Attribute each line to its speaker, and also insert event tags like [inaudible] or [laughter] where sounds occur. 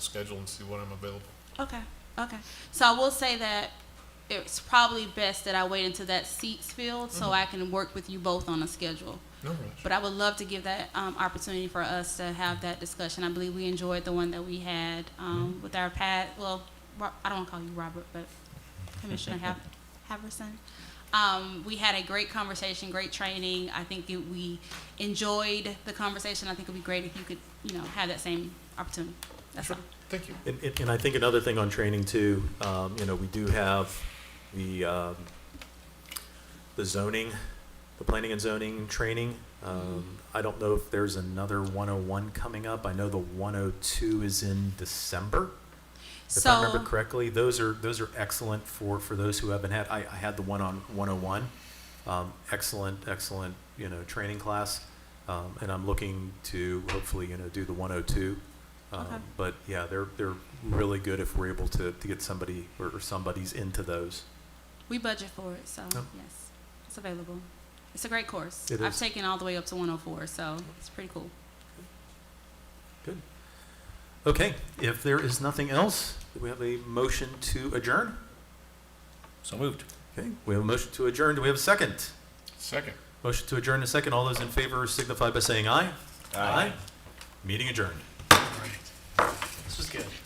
Speaker 1: schedule and see when I'm available.
Speaker 2: Okay, okay. So I will say that it's probably best that I wait until that seat's filled
Speaker 3: Mm-hmm.
Speaker 2: so I can work with you both on a schedule.
Speaker 1: No rush.
Speaker 2: But I would love to give that um, opportunity for us to have that discussion. I believe we enjoyed the one that we had um,
Speaker 3: Mm-hmm.
Speaker 2: with our pad. Well, Ro- I don't want to call you Robert, but Commissioner Hav-
Speaker 3: [laughs]
Speaker 2: Haverson. Um, we had a great conversation, great training. I think that we enjoyed the conversation. I think it would be great if you could, you know, have that same opportunity. That's
Speaker 1: Sure.
Speaker 2: all.
Speaker 1: Thank you.
Speaker 3: And, and- and I think another thing on training too, um, you know, we do have the, um, the zoning, the planning and zoning training. Um, I don't know if there's another one oh one coming up. I know the one oh two is in December, if I remember correctly. Those are, those are excellent for, for those who haven't had, I, I had the one on one oh one. Um, excellent, excellent, you know, training class. Um, and I'm looking to hopefully, you know, do the one oh two.
Speaker 2: Okay.
Speaker 3: Um, but yeah, they're, they're really good if we're able to, to get somebody or, or somebody's into those.
Speaker 2: We budget for it, so
Speaker 3: Yep.
Speaker 2: yes, it's available. It's a great course.
Speaker 3: It
Speaker 2: I've
Speaker 3: is.
Speaker 2: taken all the way up to 104, so it's pretty cool.
Speaker 3: Okay, if there is nothing else, do we have a motion to adjourn?
Speaker 4: So moved.
Speaker 3: Okay, we have a motion to adjourn. Do we have a second?
Speaker 1: Second.
Speaker 3: Motion to adjourn in a second. All those in favor signify by saying aye. Meeting adjourned.